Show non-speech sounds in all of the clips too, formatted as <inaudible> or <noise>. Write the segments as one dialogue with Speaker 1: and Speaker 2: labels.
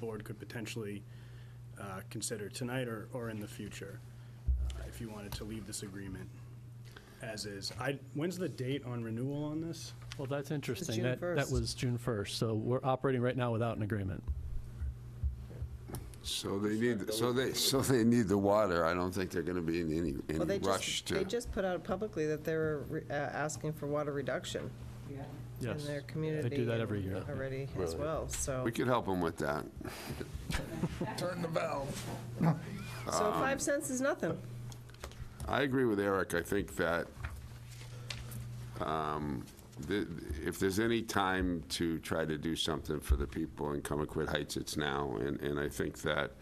Speaker 1: board could potentially uh, consider tonight or, or in the future, uh, if you wanted to leave this agreement as is. I, when's the date on renewal on this?
Speaker 2: Well, that's interesting.
Speaker 3: June
Speaker 2: That, that
Speaker 3: 1st.
Speaker 2: was June 1st, so we're operating right now without an agreement.
Speaker 4: So they need, so they, so they need the water. I don't think they're gonna be in any,
Speaker 3: Well,
Speaker 4: any
Speaker 3: they
Speaker 4: rush
Speaker 3: just, they
Speaker 4: to.
Speaker 3: just put out publicly that they were re- uh, asking for water reduction in
Speaker 2: Yes.
Speaker 3: their community.
Speaker 2: They do that
Speaker 3: and
Speaker 2: every year.
Speaker 3: Already as well, so.
Speaker 4: We could help them with that.
Speaker 5: Turn the valve.
Speaker 3: So five cents is nothing.
Speaker 4: I agree with Eric. I think that um, the- if there's any time to try to do something for the people in Comaquid Heights, it's now. And, and I think that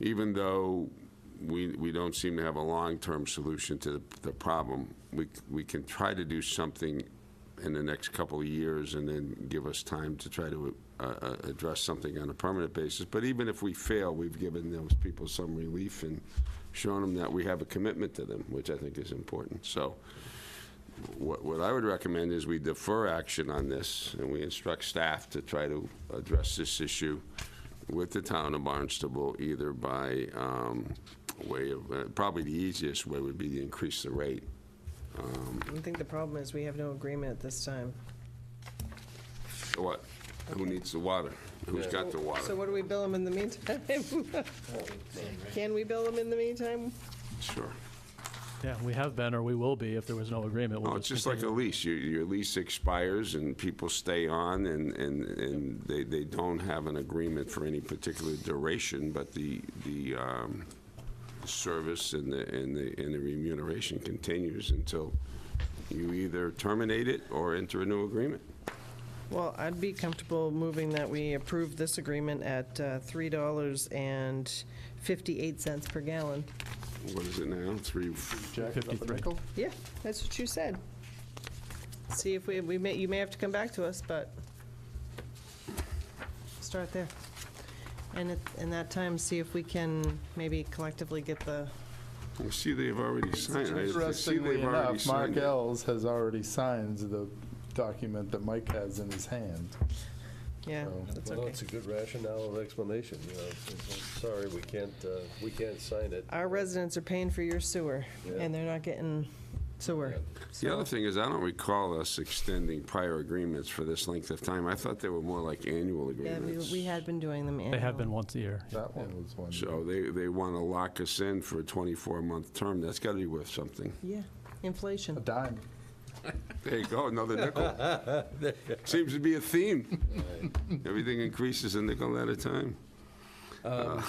Speaker 4: even though we, we don't seem to have a long-term solution to the, the problem, we, c- we can try to do something in the next couple of years and then give us time to try to uh, uh, address something on a permanent basis. But even if we fail, we've given those people some relief and shown them that we have a commitment to them, which I think is important. So what, what I would recommend is we defer action on this, and we instruct staff to try to address this issue with the town of Barnstable, either by um, way of, uh, probably the easiest way would be to increase the rate.
Speaker 3: I think the problem is we have no agreement at this time.
Speaker 4: What? Who needs the water? Who's got the
Speaker 3: So
Speaker 4: water?
Speaker 3: what do we bill them in the meantime? <laughs> Can we bill them in the meantime?
Speaker 4: Sure.
Speaker 2: Yeah, we have been, or we will be, if there was no agreement. We'll
Speaker 4: No, Oh, it's just like a
Speaker 2: continue.
Speaker 4: lease. Your, your lease expires and people stay on and, and, and they, they don't have an agreement for any particular duration, but the, the, um, service and the, and the, and the remuneration continues until you either terminate it or enter a new agreement.
Speaker 3: Well, I'd be comfortable moving that we approve this agreement at uh, $3.58 per gallon.
Speaker 4: What is it now? Three,
Speaker 2: 53.
Speaker 3: Yeah, that's what you said. See if we, we may, you may have to come back to us, but start there. And at, in that time, see if we can maybe collectively get the,
Speaker 4: you see they've already signed. I- I see
Speaker 5: Interestingly
Speaker 4: they've already
Speaker 5: enough, Mark
Speaker 4: signed it.
Speaker 5: Ells has already signed the document that Mike has in his hand.
Speaker 3: yeah,
Speaker 5: Well,
Speaker 3: that's
Speaker 6: Well,
Speaker 3: okay.
Speaker 6: it's a good rationale and explanation, you know, it's- it's- sorry, we can't, uh, we can't sign it.
Speaker 3: Our residents are paying for your sewer,
Speaker 6: Yeah.
Speaker 3: and they're not getting sewer.
Speaker 4: The other thing is, I don't recall us extending prior agreements for this length of time. I thought they were more like annual
Speaker 3: Yeah, we,
Speaker 4: agreements.
Speaker 3: we had been doing them
Speaker 2: They have been
Speaker 3: annually.
Speaker 2: once a year.
Speaker 5: That one was one.
Speaker 4: So they, they want to lock us in for a 24-month term. That's got to be worth something.
Speaker 3: Yeah,
Speaker 5: A
Speaker 3: inflation.
Speaker 5: dime.
Speaker 4: There you go, another nickel. Seems to be a theme. Everything increases a nickel at a time.
Speaker 6: Wha-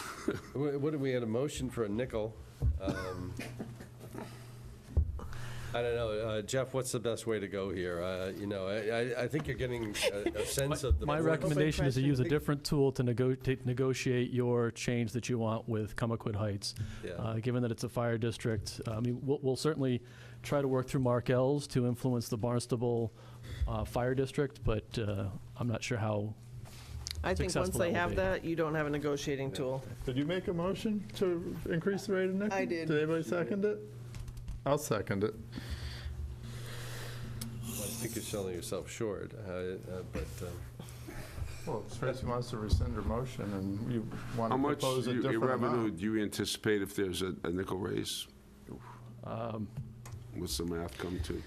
Speaker 6: What, do we had a motion for a nickel? Um, I don't know, uh, Jeff, what's the best way to go here? Uh, You know, I, I- I think you're getting
Speaker 2: <laughs>
Speaker 6: a a sense of the.
Speaker 2: My
Speaker 6: board.
Speaker 2: recommendation is to use a
Speaker 3: question.
Speaker 2: different tool to nego- to negotiate your change that you want with Comaquid Heights.
Speaker 6: Yeah.
Speaker 2: Uh, Given that it's a fire district, Uh, I mean, we'll we'll certainly try to work through Mark Ells to influence the Barnstable uh, Fire District, but uh, I'm not sure how
Speaker 3: I think once
Speaker 2: Successful that
Speaker 3: they
Speaker 2: will
Speaker 3: have
Speaker 2: be.
Speaker 3: that, you don't have a negotiating tool.
Speaker 5: Did you make a motion to increase the rate of nickel?
Speaker 3: I did.
Speaker 5: Did anybody second it? I'll second it.
Speaker 6: I think you're selling yourself short, uh, uh, but, um,
Speaker 5: Well, Tracy wants to rescind her motion and you want
Speaker 4: How
Speaker 5: to
Speaker 4: much
Speaker 5: propose a
Speaker 4: you-
Speaker 5: different
Speaker 4: revenue
Speaker 5: amount.
Speaker 4: do you anticipate if there's a a nickel raise?
Speaker 5: Um,
Speaker 4: What's the math come to?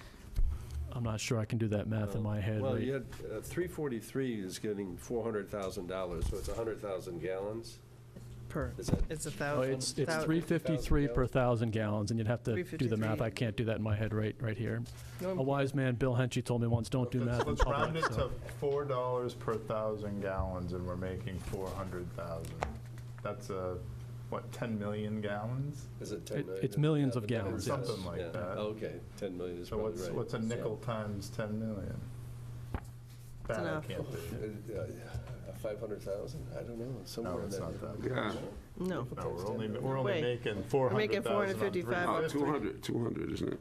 Speaker 2: I'm not sure I can do that math in my head.
Speaker 6: well,
Speaker 2: right?
Speaker 6: you had, uh, 343 is getting $400,000, so it's 100,000 gallons.
Speaker 3: Per,
Speaker 6: Is that-
Speaker 3: it's a
Speaker 2: Oh,
Speaker 3: thousand.
Speaker 2: It's, it's
Speaker 3: thou-
Speaker 2: 353 per 1,000 gallons, and you'd have to do the math.
Speaker 3: 353.
Speaker 2: I can't do that in my head right, right here.
Speaker 3: No,
Speaker 2: A
Speaker 3: I'm-
Speaker 2: wise man, Bill Henchy, told me once, don't do math
Speaker 5: Let's
Speaker 2: in
Speaker 5: let's round
Speaker 2: public.
Speaker 5: it to
Speaker 2: so-
Speaker 5: four dollars per thousand gallons and we're making four hundred thousand. That's a, what, ten million gallons?
Speaker 6: Is it 10
Speaker 2: It-
Speaker 6: million?
Speaker 2: it's millions of
Speaker 6: Yeah, the
Speaker 2: gallons,
Speaker 6: numbers,
Speaker 5: yes. Something like
Speaker 6: yeah. Oh,
Speaker 5: that.
Speaker 6: Okay, 10 million is
Speaker 5: So
Speaker 6: probably right.
Speaker 5: what's, what's a nickel times ten million? That I
Speaker 3: enough.
Speaker 5: can't
Speaker 6: Uh,
Speaker 5: do.
Speaker 6: Five hundred thousand? I don't know, somewhere
Speaker 5: No,
Speaker 6: in
Speaker 5: it's not
Speaker 6: that.
Speaker 5: that.
Speaker 4: Yeah,
Speaker 3: No.
Speaker 5: No, we're only, we're only
Speaker 3: Wait.
Speaker 5: making
Speaker 3: We're making
Speaker 5: 400,000 on
Speaker 3: 455.
Speaker 4: Oh,
Speaker 5: 350.
Speaker 4: 200, 200, isn't it?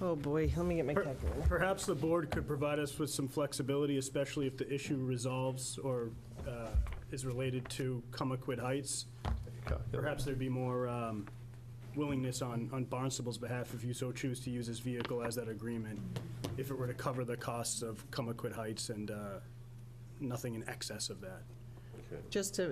Speaker 3: Oh, boy, let me get my
Speaker 1: Per-
Speaker 3: calculator.
Speaker 1: Perhaps the board could provide us with some flexibility, especially if the issue resolves or uh, is related to Comaquid Heights. Perhaps there'd be more um, willingness on, on Barnstable's behalf if you so choose to use this vehicle as that agreement, if it were to cover the costs of Comaquid Heights and uh, nothing in excess of that.
Speaker 3: just to